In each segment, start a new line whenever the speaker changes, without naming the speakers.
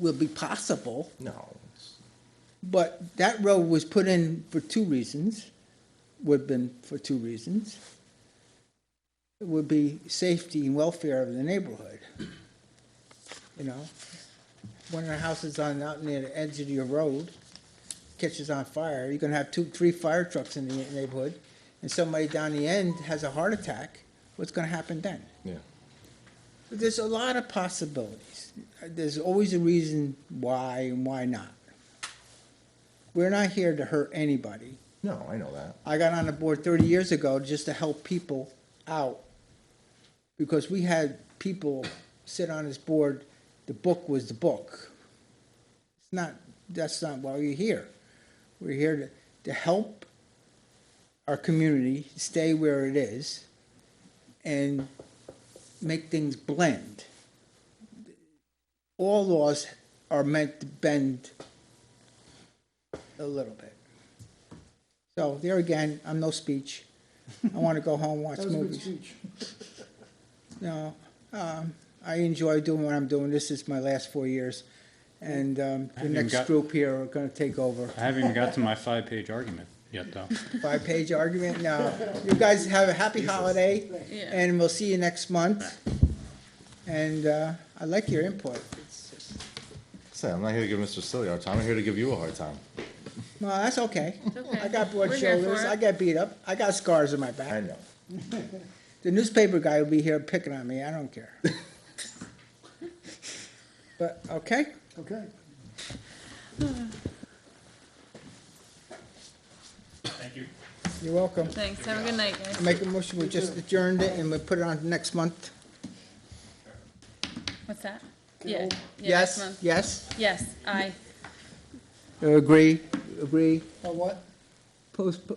will be possible,
No, it's-
but that road was put in for two reasons, would have been for two reasons. It would be safety and welfare of the neighborhood. You know, one of the houses on, out near the edge of your road catches on fire, you're gonna have two, three fire trucks in the neighborhood, and somebody down the end has a heart attack, what's gonna happen then?
yeah.
But There's a lot of possibilities. There's always a reason why and why not. We're not here to hurt anybody.
No, I know that.
I got on the board thirty years ago just to help people out. Because we had people sit on this board, the book was the book. It's not, that's not why we're here. We're here to, to help our community stay where it is and make things blend. All laws are meant to bend a little bit. So there again, I'm no speech. I want to go home, watch movies. No, um, I enjoy doing what I'm doing. This is my last four years. And, um, the
Haven't
next
got-
group here are gonna take over.
I haven't even got to my five-page argument yet, though.
Five-page argument, no. You guys have a happy holiday, and we'll see you next month. And, uh, I like your input. It's just-
Say, I'm not here to give Mr. Silly a hard time. I'm here to give you a hard time.
No, that's okay.
okay.
I got broad
We're here for
shoulders,
it.
I got beat up, I got scars on my back.
I know.
The newspaper guy will be here picking on me, I don't care. But, okay?
Okay.
You're welcome.
Thanks, have a good night, guys.
Make a motion, we just adjourned it and we put it on next month.
What's that? Yeah. yeah, next
Yes,
month.
yes?
Yes, aye.
Agree, agree.
On what?
uh, Post,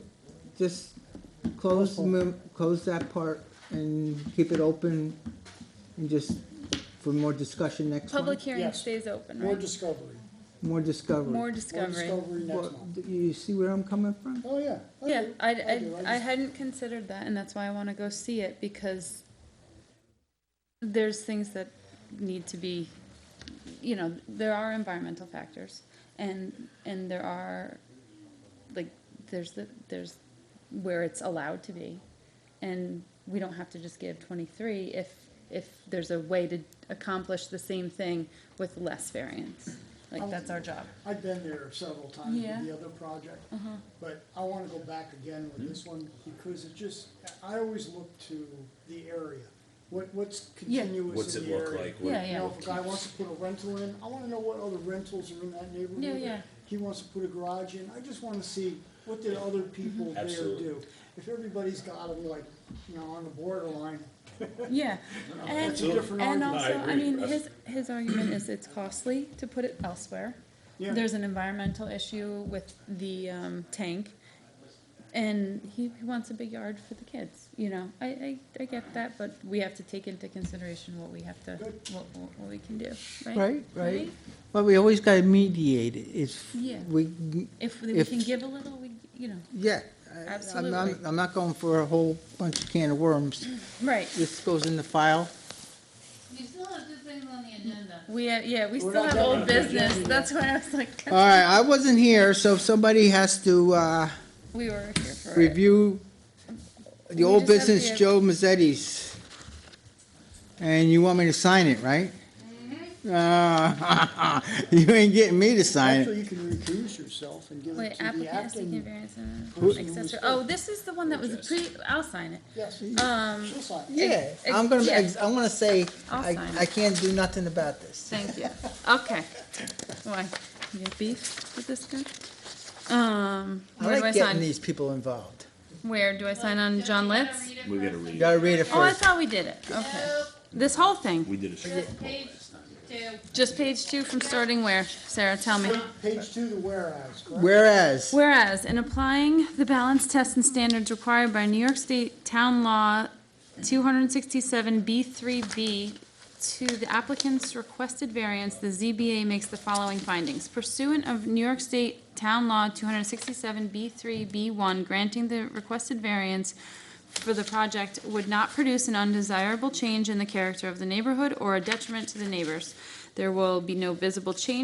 just close, the mem- close that part and keep it open and just for more discussion next
Public
month.
hearing
Yes.
stays open,
More
right?
discovery.
More
More
discovery.
More
discovery.
discovery next
Well,
month.
d- You see where I'm coming from?
Oh, yeah. I
Yeah,
do,
I,
do,
I, I
just-
hadn't considered that, and that's why I wanna go see it, because there's things that need to be, you know, there are environmental factors, and, and there are, like, there's the, there's where it's allowed to be, and we don't have to just give twenty-three if, if there's a way to accomplish the same thing with less variance. Like, that's our job.
I've been there several times
Yeah. Uh-huh.
with the other project, but I want to go back again with this one because it just, I always look to the area. What, what's
Yeah.
continuous
What's
in
it
the
look
area?
like?
Yeah,
What-
You know,
yeah.
if a guy wants to put a rental in, I want to know what other rentals are in that neighborhood.
Yeah, yeah.
He wants to put a garage in, I just want to see what did other
Mm-hmm.
people there
Absolutely.
do? If everybody's got them like, you know, on the borderline,
Yeah, and,
That's a different
and
argument.
also,
No, I
I
agree,
mean,
Russ.
his, his argument is it's costly to put it elsewhere.
Yeah.
There's an environmental issue with the, um, tank, and he, he wants a big yard for the kids, you know, I, I, I get that, but we have to take into consideration what we have to, what, what what we can do, right?
Right, right. But we always gotta mediate it, it's,
Yeah.
we,
If we
If-
can give a little, we, you know,
yeah. I- I'm- I'm,
Absolutely.
I'm not going for a whole bunch of can of worms.
right,
This goes in the file.
You still have two things on the agenda.
we, uh, yeah, we
We're
still
not
have
done
old business, that's why I was like,
All right, I wasn't here, so if somebody has to, uh,
we were here for it.
review the
We
old
just have to
business
have-
Joe Mazzetti's. And you want me to sign it, right?
Mm-hmm.
Uh, You ain't getting me to sign
actually
it.
you can recuse yourself and give
Wait,
it to the
applicant has taken
acting.
variance and accessory, oh, this is the one that was pre, I'll sign it.
Yes,
Um,
she'll sign.
Yeah, I'm gonna,
Yeah.
I'm gonna say,
I'll
I,
sign
I
it.
can't do nothing about this.
thank you, okay. Why, you have beef with this guy? Um, where
I
do I
like getting
sign?
these people involved.
Where, do I sign on John Litz?
We gotta
You
read it
gotta read it
Oh, I
first.
thought we did it, okay. This whole thing,
We did a
first. Just page two.
just page two from starting where, Sarah, tell me.
Page two, the whereas, correct?
Whereas,
Whereas, in applying the balance tests and standards required by New York State Town Law 267B3B to the applicant's requested variance, the ZBA makes the following findings. Pursuant of New York State Town Law 267B3B1, granting the requested variance for the project would not produce an undesirable change in the character of the neighborhood or a detriment to the neighbors. There will be no visible change